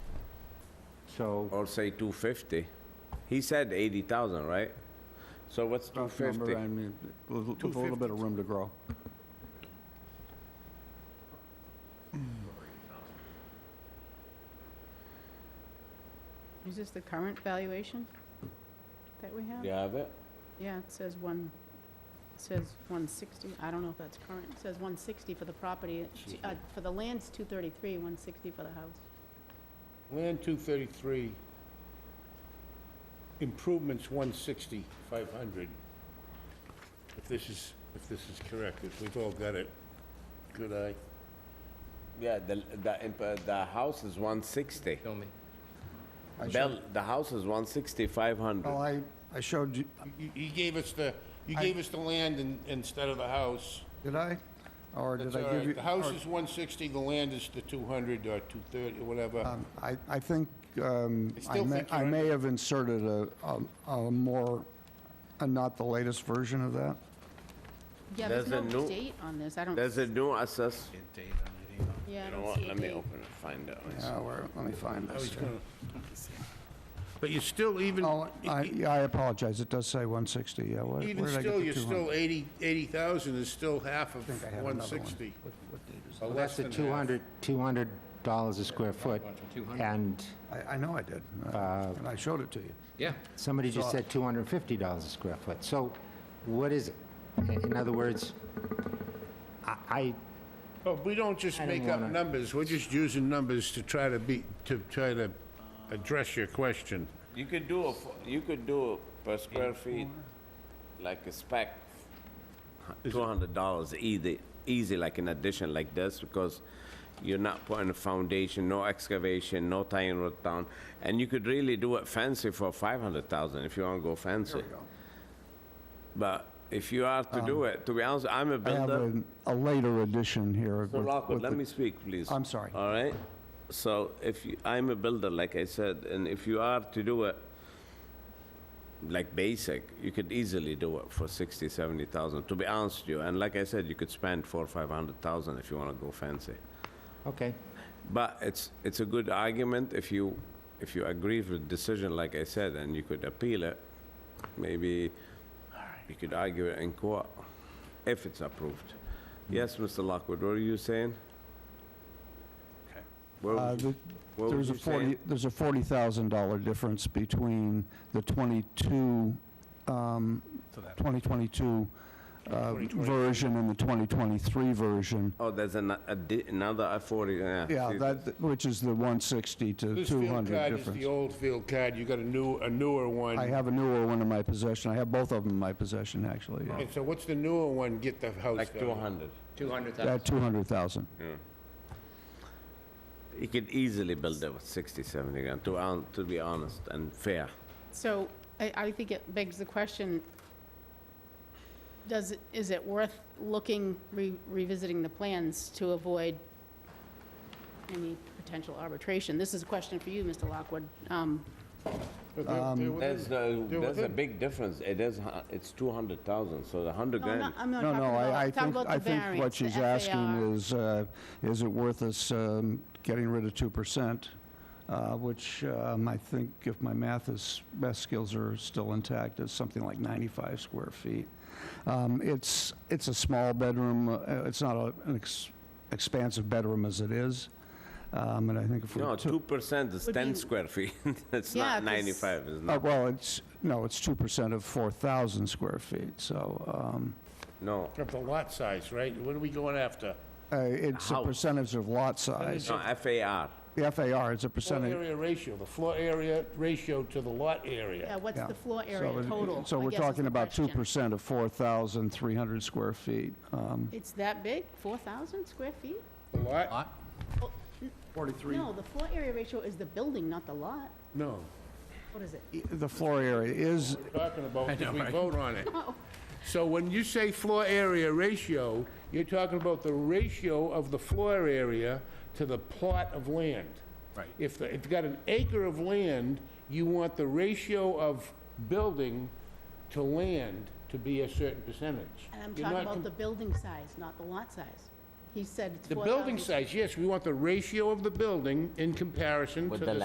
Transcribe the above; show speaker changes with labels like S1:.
S1: so.
S2: or say 250. He said 80,000, right? So what's
S1: rough number,
S2: 250?
S1: I mean, a little- a little bit of room to grow.
S3: Is this the current valuation that we have?
S2: You have it?
S3: Yeah, it says one, it says 160, I don't know if that's current, it says 160 for the property,
S4: Excuse
S3: uh,
S4: me.
S3: for the land's 233, 160 for the house.
S4: Land 233, improvements 160, 500. If this is, if this is correct, if we've all got it, good eye.
S2: Yeah, the, the, imp- uh, the house is 160.
S5: Kill me.
S1: I Oh. showed-
S2: Bell, the house is 160, 500.
S1: Well, I, I showed you,
S4: You- You gave us the, you
S1: I-
S4: gave us the land in- instead of the house.
S1: did I? Or did
S4: That's
S1: I
S4: all
S1: give you?
S4: right. The house
S1: or-
S4: is 160, the land is the 200 or 230, or whatever.
S1: Um, I, I think, um,
S4: I
S1: I
S4: still
S1: may,
S4: think
S1: I
S4: you're
S1: may
S4: under-
S1: have inserted a, a- a more, a not the latest version of that.
S3: Yeah, there's
S2: There's
S3: no
S2: a new-
S3: date on this, I don't,
S2: There's a new assess.
S3: yeah, I
S2: You know
S3: don't
S2: what,
S3: see a
S2: let me
S3: date.
S2: open it, find out.
S1: Yeah,
S4: Oh,
S1: where, let me find
S4: I was
S1: this.
S4: gonna- But you're still even,
S1: Oh, I, yeah, I apologize, it does say 160, yeah, where, where did
S4: even
S1: I get
S4: still,
S1: the
S4: you're
S1: 200?
S4: still 80, 80,000 is still half of
S1: I have another one.
S4: 160. Or
S6: Well,
S4: less
S6: that's the
S4: than half.
S6: 200, $200 a square foot, and
S1: I, I know I did, uh, and I showed it to you.
S5: Yeah.
S6: somebody just said $250 a square foot. So what is it? In- In other words, I- I,
S4: But we don't just
S6: I
S4: make
S6: didn't
S4: up
S6: wanna-
S4: numbers, we're just using numbers to try to be, to try to address your question.
S2: You could do, a f- you could do per square feet, like a spec, $200 easy, easy, like an addition like this, because you're not putting a foundation, no excavation, no tying root down, and you could really do it fancy for 500,000 if you want to go fancy. But if you are to do it, to be honest, I'm a
S1: I have
S2: builder.
S1: a, a later edition here.
S2: Mr.
S1: with-
S2: Lockwood,
S1: with
S2: let
S1: the-
S2: me speak, please.
S1: I'm sorry.
S2: All right? So if, you- I'm a builder, like I said, and if you are to do it, like basic, you could easily do it for 60, 70,000, to be honest with you. And like I said, you could spend four, 500,000 if you want to go fancy.
S6: okay,
S2: But it's, it's a good argument if you, if you agree with the decision, like I said, and you could appeal it. Maybe you could argue it in court, if it's approved. Yes, Mr. Lockwood, what are you saying? What
S1: Uh,
S2: was-
S1: the-
S2: what
S1: There's a
S2: was you saying?
S1: 40, there's a $40,000 difference between the 22, um, 2022 uh, version and the 2023 version.
S2: Oh, there's an, a di- another uh, 40, yeah.
S1: Yeah,
S2: see,
S1: that, which is the 160 to
S4: This field
S1: 200
S4: card is the
S1: difference.
S4: old field card, you got a new, a newer one.
S1: I have a newer one in my possession. I have both of them in my possession, actually. yeah.
S4: And so what's the newer one get the house
S2: Like
S4: value?
S2: 200.
S5: 200,000.
S1: At 200,000.
S2: You could easily build it with 60, 70 grand, to, hon- to be honest and fair.
S3: So I, I think it begs the question, does, it- is it worth looking, re- revisiting the plans to avoid any potential arbitration? This is a question for you, Mr. Lockwood. Um,
S4: But they're- they're within-
S2: There's, a-
S4: they're
S2: there's a
S4: within.
S2: big difference. It is, hu- it's 200,000, so the 100
S3: No, I'm
S2: grand.
S3: not, I'm not
S1: No,
S3: talking
S1: no,
S3: about,
S1: I, I
S3: I'm talking
S1: think,
S3: about
S1: I
S3: the
S1: think what
S3: variance, the
S1: she's asking
S3: FAR.
S1: is, uh, is it worth us um, getting rid of 2%? uh, Which um, I think, if my math is, math skills are still intact, is something like 95 square feet. Um, It's, it's a small bedroom, uh, it's not a- an ex- expansive bedroom as it is. Um, And I think if we
S2: No,
S1: took,
S2: 2% is
S3: uh, Would
S2: 10
S3: you-
S2: square feet. It's
S3: Yeah,
S2: not
S3: 'cause-
S2: 95, it's
S1: uh,
S2: not.
S1: well, it's, no, it's 2% of 4,000 square feet, so um,
S2: No.
S4: Up the lot size, right? What are we going after?
S1: uh, it's a
S2: House.
S1: percentage of lot size.
S2: No, FAR.
S1: The FAR is
S4: Floor
S1: a percentage.
S4: area ratio, the floor area ratio to the lot
S3: Yeah,
S4: area.
S3: what's
S1: Yeah.
S3: the floor
S1: So
S3: area
S1: it-
S3: total?
S1: So
S3: I
S1: we're
S3: guess is
S1: talking
S3: the
S1: about two
S3: question.
S1: percent of four thousand three hundred square feet. Um,
S3: It's that big, 4,000 square feet?
S4: The lot?
S5: Lot?
S3: Forty-three. No, the floor area ratio is the building, not the lot.
S4: No.
S3: What is it?
S1: i- The floor area is,
S4: Talking about, because we vote on it.
S3: Oh.
S4: So when you say floor area ratio, you're talking about the ratio of the floor area to the plot of land. Right. If, the- if you've got an acre of land, you want the ratio of building to land to be a certain percentage.
S3: And I'm
S4: You're
S3: talking
S4: not
S3: about
S4: com-
S3: the building size, not the lot size. He said it's
S4: The
S3: 4,000.
S4: building size, yes, we want the ratio of the building in comparison to
S2: With
S4: the
S2: the